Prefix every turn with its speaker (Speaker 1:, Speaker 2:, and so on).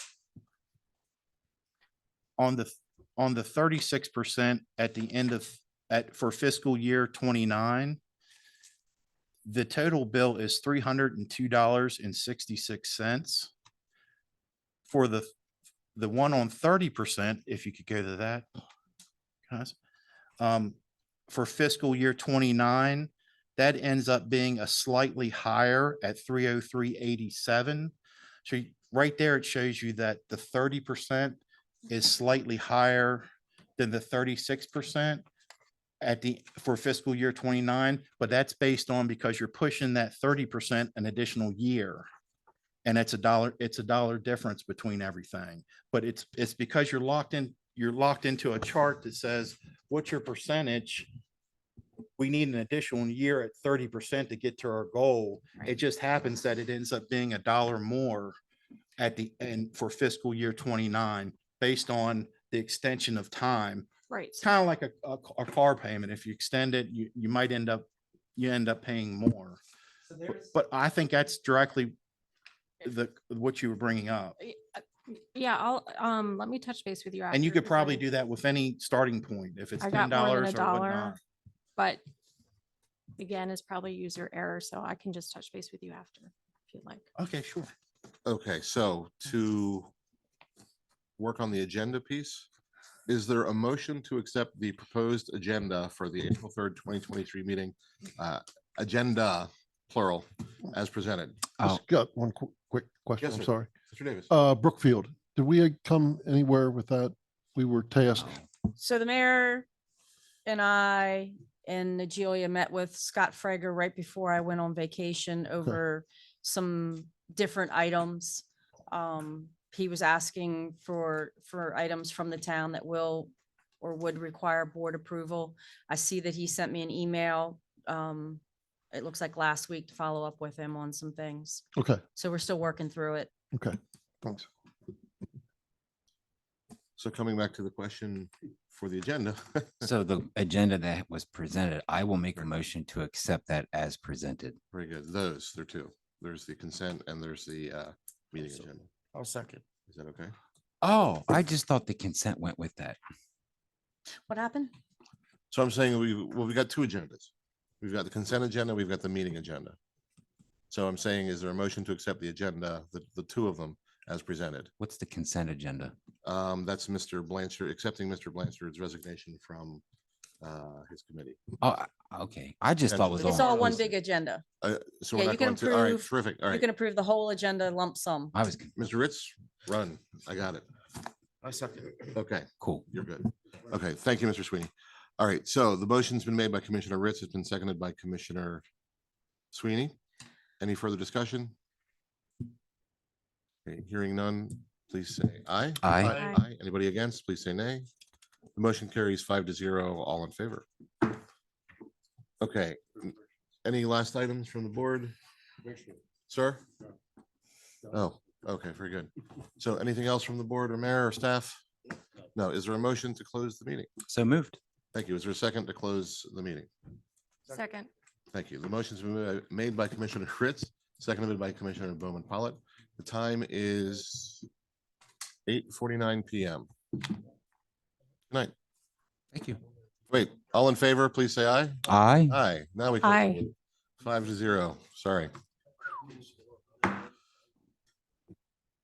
Speaker 1: on the, on the thirty-six percent at the end of, at, for fiscal year twenty-nine, the total bill is three hundred and two dollars and sixty-six cents. For the, the one on thirty percent, if you could go to that. guys, Um, for fiscal year twenty-nine, that ends up being a slightly higher at three oh three eighty-seven. So you- right there, it shows you that the thirty percent is slightly higher than the thirty-six percent at the, for fiscal year twenty-nine, but that's based on because you're pushing that thirty percent an additional year. And it's a dollar, it's a dollar difference between everything, but it's, it's because you're locked in, you're locked into a chart that says, what's your percentage? We need an additional year at thirty percent to get to our goal. It
Speaker 2: Right.
Speaker 1: just happens that it ends up being a dollar more at the end for fiscal year twenty-nine, based on the extension of time
Speaker 2: Right.
Speaker 1: it's kind of like a, a, c- a car payment. If you extend it, you, you might end up, you end up paying more.
Speaker 3: So
Speaker 1: But-
Speaker 3: there's,
Speaker 1: But I think that's directly the, what you were bringing up.
Speaker 2: Y- uh, Yeah, I'll, um, let me touch base with you.
Speaker 1: And you
Speaker 2: after,
Speaker 1: could
Speaker 2: 'cause
Speaker 1: probably
Speaker 2: I-
Speaker 1: do that with any starting point, if it's
Speaker 2: I
Speaker 1: ten
Speaker 2: got more than
Speaker 1: dollars
Speaker 2: a
Speaker 1: or
Speaker 2: dollar,
Speaker 1: whatnot.
Speaker 2: but again, it's probably user error, so I can just touch base with you after if you'd like.
Speaker 1: Okay, sure.
Speaker 4: Okay, so to work on the agenda piece, is there a motion to accept the proposed agenda for the April third, twenty twenty-three meeting? uh, Agenda, plural, as presented.
Speaker 5: Just got one qu- quick question,
Speaker 4: Yes,
Speaker 5: I'm
Speaker 4: sir.
Speaker 5: sorry.
Speaker 4: Mr. Davis.
Speaker 5: Uh, Brookfield, did we uh, come anywhere with that? We were tasked,
Speaker 6: So the mayor and I and Nigelia met with Scott Frager right before I went on vacation over some different items. Um, he was asking for, for items from the town that will or would require board approval. I see that he sent me an email, um, it looks like last week to follow up with him on some things.
Speaker 5: okay,
Speaker 6: So we're still working through it.
Speaker 5: okay, thanks.
Speaker 4: So coming back to the question for the agenda,
Speaker 7: So the agenda that was presented, I will make a motion to accept that as presented.
Speaker 4: very good. Those, there are two. There's the consent and there's the uh, meeting
Speaker 3: Also.
Speaker 4: agenda.
Speaker 3: I'll second.
Speaker 4: Is that okay?
Speaker 7: Oh, I just thought the consent went with that.
Speaker 6: What happened?
Speaker 4: So I'm saying we, well, we've got two agendas. We've got the consent agenda, we've got the meeting agenda. So I'm saying, is there a motion to accept the agenda, the, the two of them as presented?
Speaker 7: What's the consent agenda?
Speaker 4: Um, that's Mr. Blanchard, accepting Mr. Blanchard's resignation from, uh, his committee.
Speaker 7: Oh, I- okay. I just thought it was
Speaker 4: Potentially.
Speaker 6: It's
Speaker 7: all.
Speaker 6: all one
Speaker 4: Those-
Speaker 6: big agenda.
Speaker 4: Uh, so we're
Speaker 6: Yeah,
Speaker 4: not
Speaker 6: you can
Speaker 4: going to, all right,
Speaker 6: approve-
Speaker 4: terrific, all
Speaker 6: You
Speaker 4: right.
Speaker 6: can approve the whole agenda lump sum.
Speaker 7: I was con-
Speaker 4: Mr. Ritz, run, I got it.
Speaker 3: I second.
Speaker 4: Okay,
Speaker 7: cool.
Speaker 4: you're good. Okay, thank you, Mr. Sweeney. All right, so the motion's been made by Commissioner Ritz, it's been seconded by Commissioner Sweeney. Any further discussion? Okay, Hearing none, please say aye.
Speaker 7: Aye.
Speaker 2: Aye.
Speaker 4: Aye. Anybody against, please say nay. The motion carries five to zero, all in favor. Okay, n- any last items from the board? Sir? Oh, okay, very good. So anything else from the board or mayor or staff? No, is there a motion to close the meeting?
Speaker 7: So moved.
Speaker 4: Thank you. Is there a second to close the meeting?
Speaker 2: Second.
Speaker 4: Thank you. The motion's been ma- made by Commissioner Fritz, seconded by Commissioner Bowman Pollitt. The time is eight forty-nine PM. Good Night.
Speaker 7: Thank you.
Speaker 4: Wait, all in favor, please say aye.
Speaker 7: Aye.
Speaker 4: Aye. Now we. can-
Speaker 2: Aye.
Speaker 4: Five to zero. Sorry.